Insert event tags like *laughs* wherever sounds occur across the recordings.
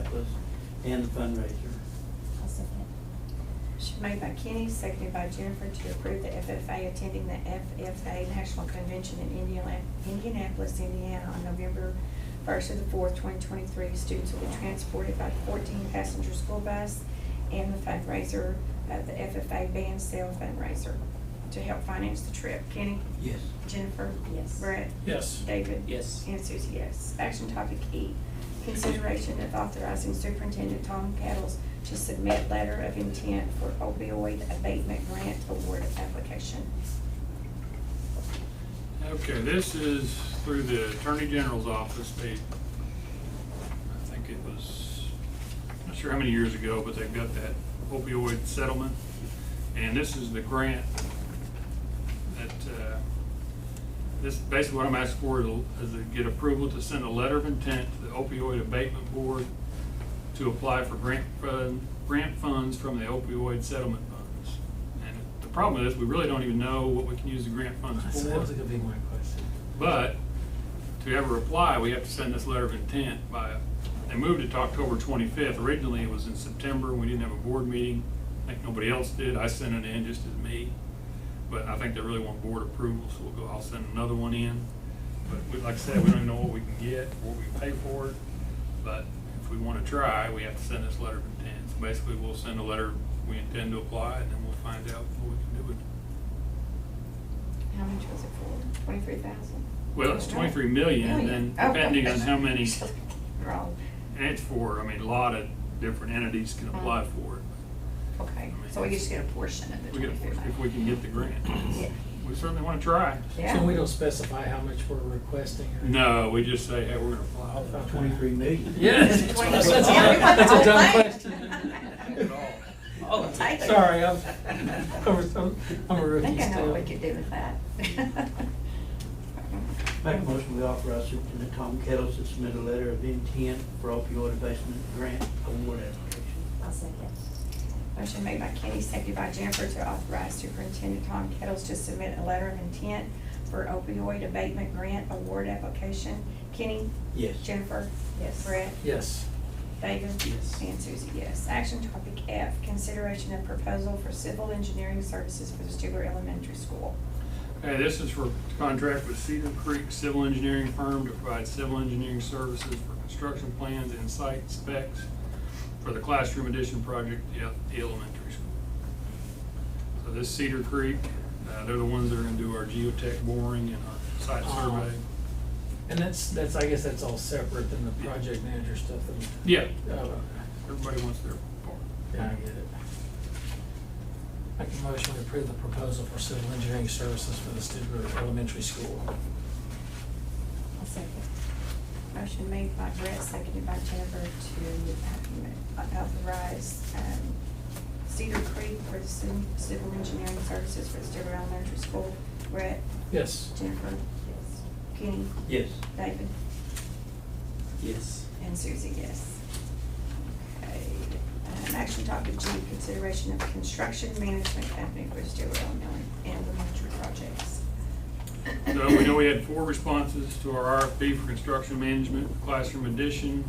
office and the fundraiser. I'll second. Motion made by Kenny, seconded by Jennifer to approve the FFA attending the FFA National Convention in Indiana- Indianapolis, Indiana on November first to the fourth, twenty twenty-three. Students will be transported by fourteen passenger school bus and the fundraiser, uh, the FFA band sale fundraiser to help finance the trip. Kenny? Yes. Jennifer? Yes. Brett? Yes. David? Yes. And Susie, yes. Action topic E, consideration of authorizing Superintendent Tom Caddles to submit letter of intent for opioid abatement grant award application. Okay, this is through the Attorney General's office. They, I think it was, I'm not sure how many years ago, but they've got that opioid settlement. And this is the grant that, uh, this, basically what I'm asking for is is to get approval to send a letter of intent to the opioid abatement board to apply for grant fund, grant funds from the opioid settlement funds. And the problem is, we really don't even know what we can use the grant funds for. That was gonna be my question. But to ever apply, we have to send this letter of intent by, they moved it to October twenty-fifth. Originally, it was in September. We didn't have a board meeting. I think nobody else did. I sent it in just as me. But I think they really want board approval, so we'll go, I'll send another one in. But we, like I said, we don't even know what we can get, what we pay for it. But if we wanna try, we have to send this letter of intent. So basically, we'll send a letter, we intend to apply, and then we'll find out what we can do with it. How much was it for? Twenty-three thousand? Well, it's 23 million, and then depending on how many- *laughs* Wrong. And it's for, I mean, a lot of different entities can apply Mm-hmm. for it. Okay, so we just get a portion of the We get, twenty-three if we thousand. can get the grant. Yeah. We certainly want to try. Yeah. So we don't specify how much we're requesting or? No, we just say, hey, we're going to apply. Okay. Twenty-three *laughs* million. Yes. It's That's 23. a- That's a dumb At question. all. Oh, *laughs* Take it. sorry, I'm, I'm, I'm a I rookie think I know still. what we could do with that. *laughs* *laughs* Make a motion we authorize Superintendent Tom Kettles to submit a letter of intent for opioid abatement grant award application. I'll second. Motion made by Kenny, seconded by Jennifer to authorize Superintendent Tom Kettles to submit a letter of intent for opioid abatement grant award application. Kenny? Yes. Jennifer? Yes. Brett? Yes. David? Yes. And Susie, yes. Action topic F, consideration of proposal for civil engineering services for the Stigler Elementary School. Hey, this is for contract with Cedar Creek Civil Engineering Firm to provide civil engineering services for construction plans and site specs for the classroom addition project at the elementary school. So this Cedar Creek, uh, they're the ones that are going to do our geotech boring and our site Oh. survey. And that's, that's, I guess that's all separate than the project manager stuff and. Yeah, Oh, okay. everybody wants their part. Yeah, I get it. Make a motion to approve the proposal for civil engineering services for the Studer Elementary School. I'll second. Motion made by Brett, seconded by Jennifer to um, authorize um, Cedar Creek for the ci- civil engineering services for the Stigler Elementary School. Brett, Yes. Jennifer, Yes. Kenny, Yes. David, Yes. and Susie, yes. Okay, um, action topic G, consideration of construction management company for Stigler Elementary- Elementary projects. So we know we had four responses to our RFP for construction management, classroom addition.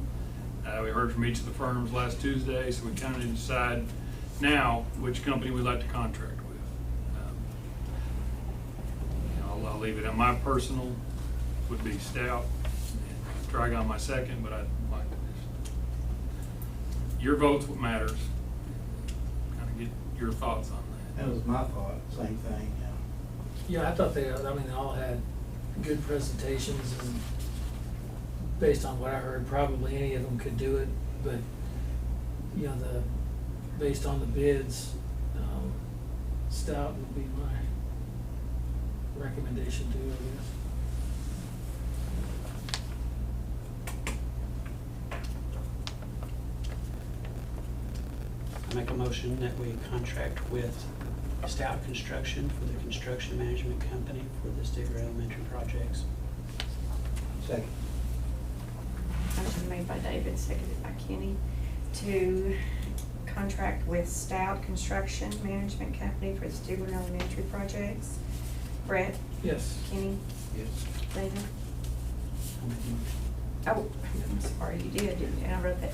Uh, we heard from each of the firms last Tuesday, so we kind of need to decide now which company we'd like to contract with. Um, you know, I'll, I'll leave it, at my personal would be Stout, and Trigon my second, but I'd like to just, your vote's what matters. Kind of get your thoughts on that. That was my thought, same thing, Yeah, I thought they, I mean, they all had good presentations and based on what I heard, probably any of them could do it, but, you know, the, based on the bids, um, Stout would be my recommendation too, I I make a motion that we contract with Stout Construction for the construction management company for the Stigler Elementary projects. yeah. Second. Motion made by David, seconded by Kenny, to contract with Stout Construction Management Company for the Stigler Elementary projects. Brett, guess. Yes. Kenny, Yes. David. I'll make a motion. *laughs* Oh, I'm sorry, you did, didn't you? And I wrote that